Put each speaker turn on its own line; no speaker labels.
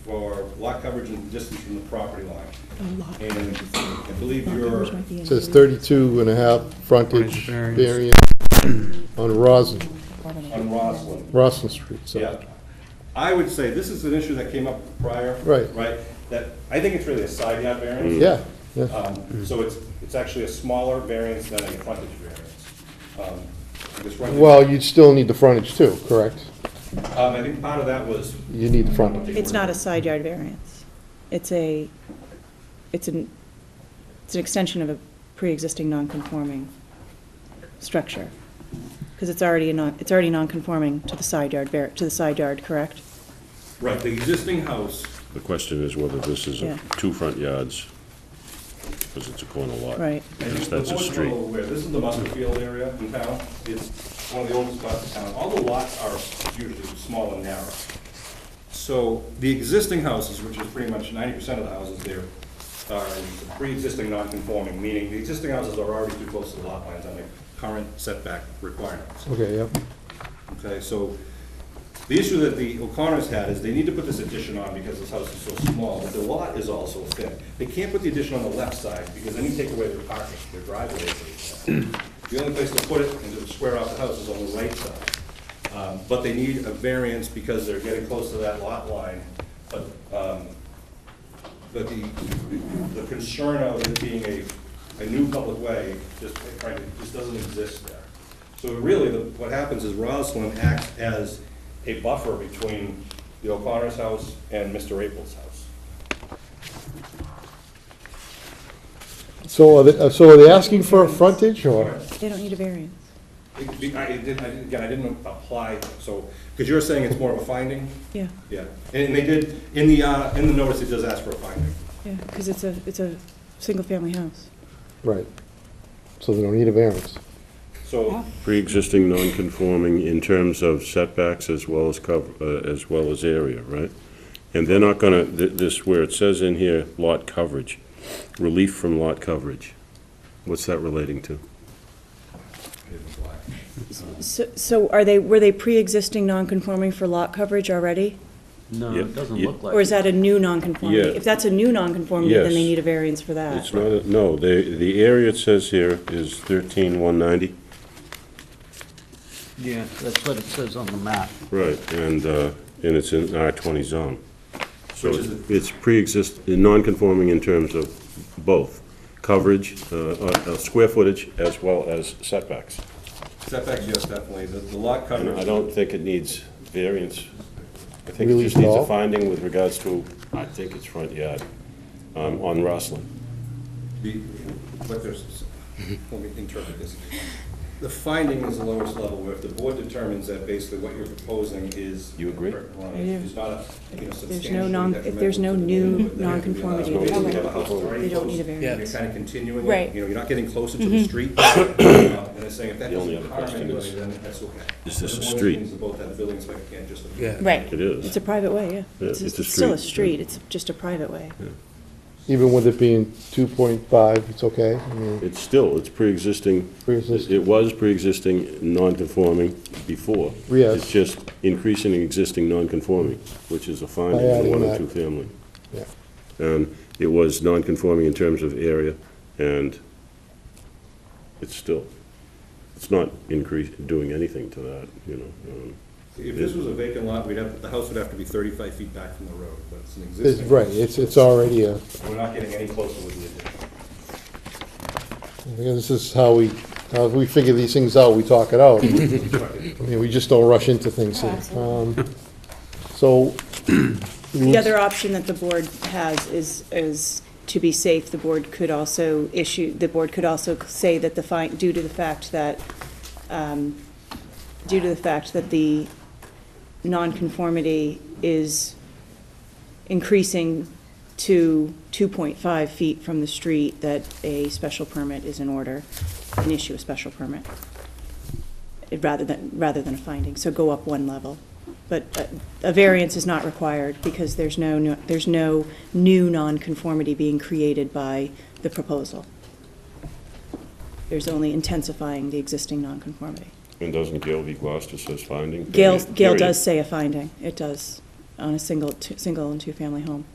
lot coverage and distance from the property line. And I believe your
Says 32 and a half frontage
Frontage variance.
variance on Roslin,
on Roslin,
Roslin Street, so.
yeah. I would say this is an issue that came up prior.
Right.
Right, that, I think it's really a side yard variance.
Yeah, yeah,
Um, So it's, it's actually a smaller variance than a frontage variance. Um, because right-
well, you'd still need the frontage too, correct?
Um, I think part of that was.
You need the frontage.
It's not a side yard variance. It's a, it's an, it's an extension of a pre-existing non-conforming structure. Because it's already a non, it's already non-conforming to the side yard, var- to the side yard, correct?
Right, the existing house,
The question is whether this is a-
Yeah.
two front yards, because it's a corner lot.
Right.
and
Yes,
the board's
that's a
well
street.
aware, this is the Muskerfield area in town. It's one of the oldest lots in town. All the lots are usually small and narrow. So the existing houses, which is pretty much ninety percent of the houses there, are pre-existing non-conforming, meaning the existing houses are already too close to the lot lines on the current setback requirements.
Okay, yep,
Okay, so the issue that the O'Connors had is they need to put this addition on because this house is so small, but the lot is also thin. They can't put the addition on the left side because then you take away their parking, their driveway. is really thin. The only place to put it and to square off the house is on the right side. Um, But they need a variance because they're getting close to that lot line. But, um, but the, the concern of it being a, a new public way, just frankly, just doesn't exist there. So really, the- what happens is Roslin acts as a buffer between the O'Connor's house and Mr. April's house.
so are they, uh, so are they asking for a frontage or?
They don't need a variance.
It- be- I didn't, I didn't- again, I didn't apply, so, because you're saying it's more of a finding?
Yeah,
Yeah, and they did, in the, uh, in the notice, it does ask for a finding.
yeah, because it's a, it's a single-family house.
Right, so they don't need a variance.
So,
Pre-existing non-conforming in terms of setbacks as well as cover, uh, as well as area, right? And they're not gonna, th- this, where it says in here, lot coverage, relief from lot coverage. What's that relating to?
So, so are they, were they pre-existing non-conforming for lot coverage already?
No,
Yeah,
it doesn't
yeah.
look like.
Or is
it.
that a new non-conformity?
Yeah.
If that's a new non-conformity, then they
Yes.
need a variance for that.
It's not, a- no, the, the area it says here is thirteen one ninety.
Yeah, that's what it says on the map.
Right, and, uh, and it's in R20 zone. So
Which is
it's- it's pre-exist, non-conforming in terms of both coverage, uh, uh, uh, square footage, as well as setbacks.
setbacks, yes, definitely, the the lot
And
coverage.
I don't think it needs variance. I think it
Really
just needs a
small?
finding with regards to, I think it's front yard um, on Roslin.
The, but there's, let me interpret this. The finding is the lowest level, where if the board determines that basically what you're proposing is.
You agree?
Is not a, you know,
If
substantially
there's no non- if there's no
detrimental to
new
the neighborhood, then you're gonna
nonconformity,
allow
they
it. You
don't-
have a house that's already
they don't
close,
need a variance.
You're kind of continuing, it,
Right. Mm-hmm.
you know, you're not getting closer to the street. uh, And it's saying if that
The only
doesn't
other
harm
question
anybody,
is,
then that's okay.
is this
But
a
the board
street?
thinks about that, the building inspector can't just.
Right.
It
It's
is.
a private way, yeah.
Yeah,
It's,
it's
a-
a
it's still a
street,
street, it's just a private way.
Even with it being 2.5, it's okay? I mean,
It's still, it's pre-existing.
Pre-existing.
It was pre-existing, non-conforming before.
Yes.
It's just increasing existing non-conforming, which is a finding
By
in a
adding
one or
that.
two family.
yeah.
And it was non-conforming in terms of area, and it's still, it's not increase, doing anything to that, you know. um,
If this was a vacant lot, we'd have, the house would have to be thirty-five feet back from the road, but it's an
It's,
existing.
right, it's, it's already a,
We're not getting any closer with the addition.
this is how we, how we figure these things out, we talk it out. I mean, we just don't rush into things here. Um, So.
The other option that the board has is, is to be safe, the board could also issue, the board could also say that the fine, due to the fact that, um, due to the fact that the nonconformity is increasing to 2.5 feet from the street, that a special permit is in order, and issue a special permit, eh, rather than, rather than a finding, so go up one level. But uh, a variance is not required, because there's no, no- there's no new nonconformity being created by the proposal. There's only intensifying the existing nonconformity.
And doesn't Gail v. Gloucester says finding?
Gail,
period-
Gail
period.
does say a finding, it does, on a single, two- single and two-family home.